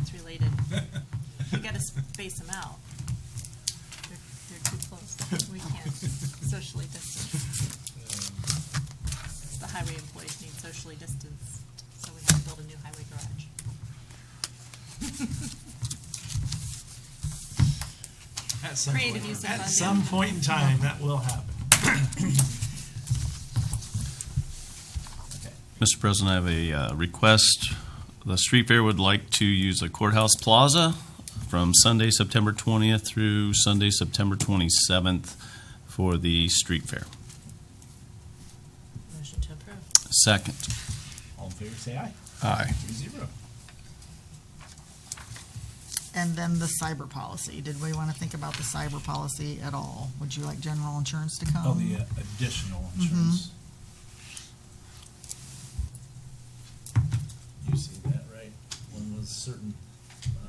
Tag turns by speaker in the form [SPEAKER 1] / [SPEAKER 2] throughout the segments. [SPEAKER 1] It's related. We gotta space them out. They're, they're too close. We can't socially distance. The highway employees need socially distanced, so we have to build a new highway garage.
[SPEAKER 2] At some
[SPEAKER 1] Creative
[SPEAKER 2] point.
[SPEAKER 1] use of
[SPEAKER 2] At
[SPEAKER 1] funding.
[SPEAKER 2] some point in time, that will happen.
[SPEAKER 3] Mr. President, I have a uh, request. The street fair would like to use the courthouse plaza from Sunday, September 20th through Sunday, September 27th for the street fair.
[SPEAKER 1] Motion to approve.
[SPEAKER 3] Second.
[SPEAKER 2] All in favor, say aye.
[SPEAKER 3] Aye.
[SPEAKER 2] Three zero.
[SPEAKER 4] And then the cyber policy. Did we want to think about the cyber policy at all? Would you like general insurance to come?
[SPEAKER 2] Oh, the uh, additional insurance. You see that, right? One was certain, uh,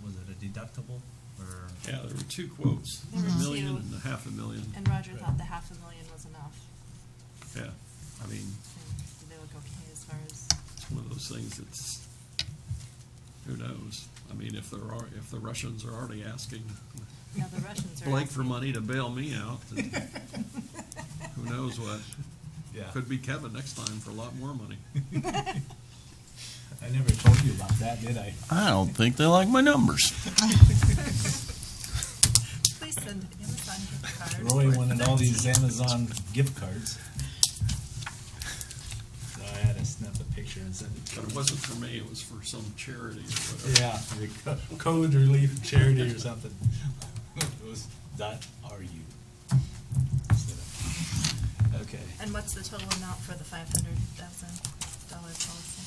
[SPEAKER 2] what was it, a deductible or?
[SPEAKER 5] Yeah, there were two quotes,
[SPEAKER 1] There were
[SPEAKER 5] a million
[SPEAKER 1] two.
[SPEAKER 5] and a half a million,
[SPEAKER 1] And Roger thought the half a million was enough,
[SPEAKER 5] yeah. I mean,
[SPEAKER 1] and they would go okay as far as,
[SPEAKER 5] it's one of those things that's, who knows? I mean, if there are, if the Russians are already asking
[SPEAKER 1] now the Russians are.
[SPEAKER 5] Blake for
[SPEAKER 1] asking.
[SPEAKER 5] money to bail me out, then who knows what?
[SPEAKER 2] Yeah.
[SPEAKER 5] Could be Kevin next time for a lot more money.
[SPEAKER 2] I never told you about that, did I?
[SPEAKER 3] I don't think they like my numbers.
[SPEAKER 1] Please send Amazon gift card.
[SPEAKER 2] Roy wanted all these Amazon gift cards. So I had to snap a picture and send it to
[SPEAKER 5] But
[SPEAKER 2] him.
[SPEAKER 5] it wasn't for me, it was for some charity or whatever.
[SPEAKER 2] Yeah, the co- code relief charity or something. It was dot RU. Okay,
[SPEAKER 1] And what's the total amount for the five hundred thousand dollar policy?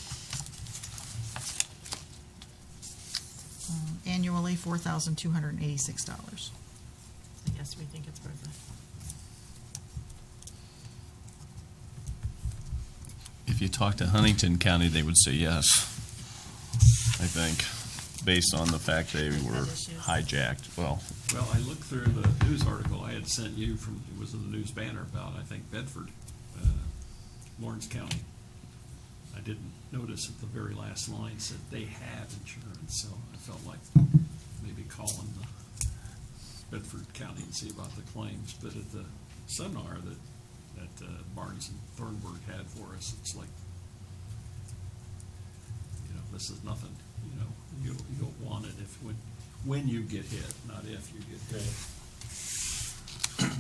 [SPEAKER 4] Um, Annually, four thousand two hundred and eighty-six dollars.
[SPEAKER 1] I guess we think it's worth it.
[SPEAKER 3] If you talk to Huntington County, they would say yes, I think, based on the fact they were hijacked. Well,
[SPEAKER 5] Well, I looked through the news article I had sent you from, it was in the news banner about, I think, Bedford, uh, Lawrence County. I didn't notice that the very last line said they have insurance, so I felt like maybe calling the Bedford County and see about the claims. But at the seminar that, that uh, Barnes and Thornburg had for us, it's like, you know, this is nothing, you know, you'll, you'll want it if, when, when you get hit, not if you get hit.
[SPEAKER 2] great.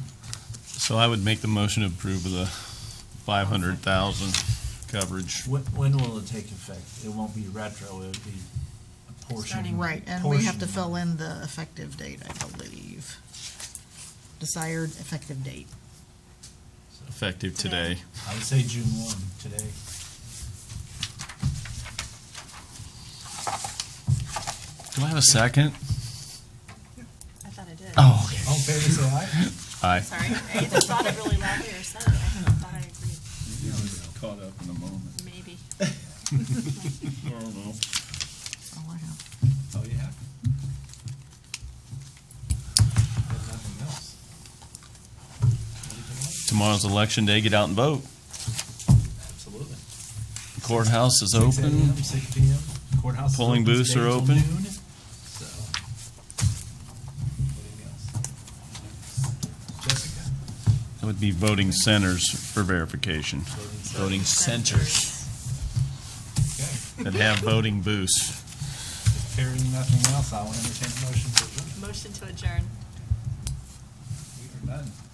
[SPEAKER 3] so I would make the motion to approve of the 500,000 coverage.
[SPEAKER 2] When, when will it take effect? It won't be retro, it'll be a portion.
[SPEAKER 1] Starting-
[SPEAKER 4] Right, and we have to
[SPEAKER 2] portion.
[SPEAKER 4] fill in the effective date, I believe. Desired effective date.
[SPEAKER 3] Effective today.
[SPEAKER 2] I would say June one, today.
[SPEAKER 3] Do I have a second?
[SPEAKER 1] I thought I did.
[SPEAKER 3] Oh, okay.
[SPEAKER 2] All in favor, say aye.
[SPEAKER 3] Aye.
[SPEAKER 1] Sorry, I either thought it really loudly or said it. I thought I agreed,
[SPEAKER 6] caught up in the moment.
[SPEAKER 1] maybe.
[SPEAKER 6] I don't know.
[SPEAKER 4] That's all I have.
[SPEAKER 2] Oh, yeah. There's nothing else. Anything else?
[SPEAKER 3] Tomorrow's election day. Get out and vote.
[SPEAKER 2] Absolutely.
[SPEAKER 3] Courthouse is
[SPEAKER 2] 6
[SPEAKER 3] open.
[SPEAKER 2] a.m., Six P M, courthouse. is
[SPEAKER 3] Polling
[SPEAKER 2] open
[SPEAKER 3] booths
[SPEAKER 2] today
[SPEAKER 3] are
[SPEAKER 2] till
[SPEAKER 3] open.
[SPEAKER 2] noon, so. Anything else? Jessica?
[SPEAKER 3] That would be voting centers for verification. Voting centers
[SPEAKER 2] Okay,
[SPEAKER 3] that have voting booths.
[SPEAKER 2] hearing nothing else, I will entertain a motion to adjourn.
[SPEAKER 1] Motion to adjourn.
[SPEAKER 2] We are done.